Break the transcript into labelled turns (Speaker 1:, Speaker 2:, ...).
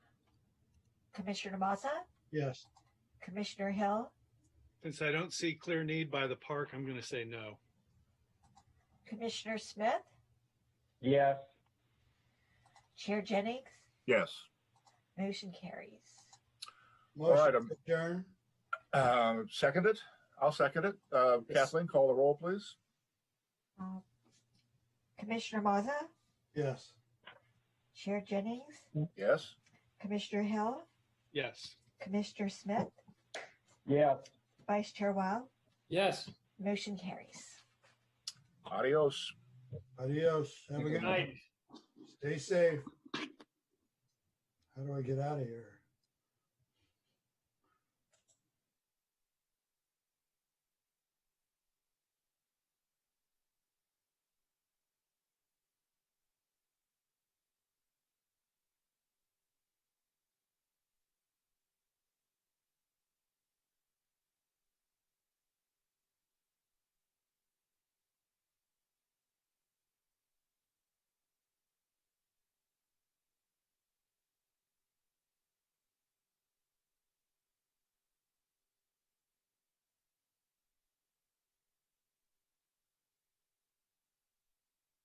Speaker 1: Commissioner Maza,
Speaker 2: Yes.
Speaker 1: Commissioner Hill,
Speaker 3: Since I don't see clear need by the park, I'm going to say no.
Speaker 1: Commissioner Smith,
Speaker 4: yes,
Speaker 1: Chair Jennings,
Speaker 5: Yes.
Speaker 1: motion carries.
Speaker 5: right,
Speaker 2: Motion
Speaker 5: um,
Speaker 2: to adjourn.
Speaker 5: Uh, Second it? I'll second it. Uh,
Speaker 2: Yes.
Speaker 5: Kathleen, call the roll, please.
Speaker 1: Uh, Commissioner Maza,
Speaker 2: Yes.
Speaker 1: Chair Jennings,
Speaker 5: Yes.
Speaker 1: Commissioner Hill,
Speaker 3: Yes.
Speaker 1: Commissioner Smith,
Speaker 4: yes.
Speaker 1: Vice Chair Wild,
Speaker 4: Yes.
Speaker 1: motion carries.
Speaker 5: Adios.
Speaker 2: Adios. Have a
Speaker 4: Good
Speaker 2: good
Speaker 4: night.
Speaker 2: Stay safe. How do I get out of here?